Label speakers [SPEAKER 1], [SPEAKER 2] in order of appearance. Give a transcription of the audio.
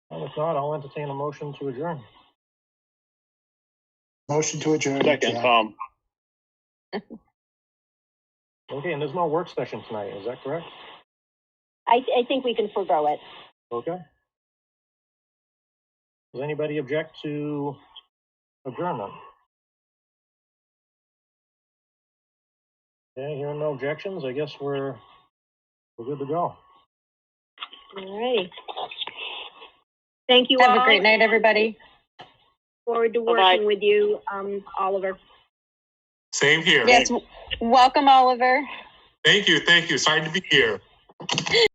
[SPEAKER 1] If not, I'll entertain a motion to adjourn.
[SPEAKER 2] Motion to adjourn.
[SPEAKER 3] Second,
[SPEAKER 2] Jack.
[SPEAKER 3] Tom.
[SPEAKER 1] Okay, and there's no work session tonight, is that correct?
[SPEAKER 4] I, I think we can forego it.
[SPEAKER 1] Okay. Does anybody object to adjournment? Okay, hearing no objections, I guess we're, we're good to go.
[SPEAKER 4] All righty. Thank you all.
[SPEAKER 5] Have a great night, everybody.
[SPEAKER 4] Forward to
[SPEAKER 3] Bye-bye.
[SPEAKER 4] working with you, um, Oliver.
[SPEAKER 6] Same here.
[SPEAKER 5] Yes, welcome, Oliver.
[SPEAKER 6] Thank you, thank you. Sorry to be here.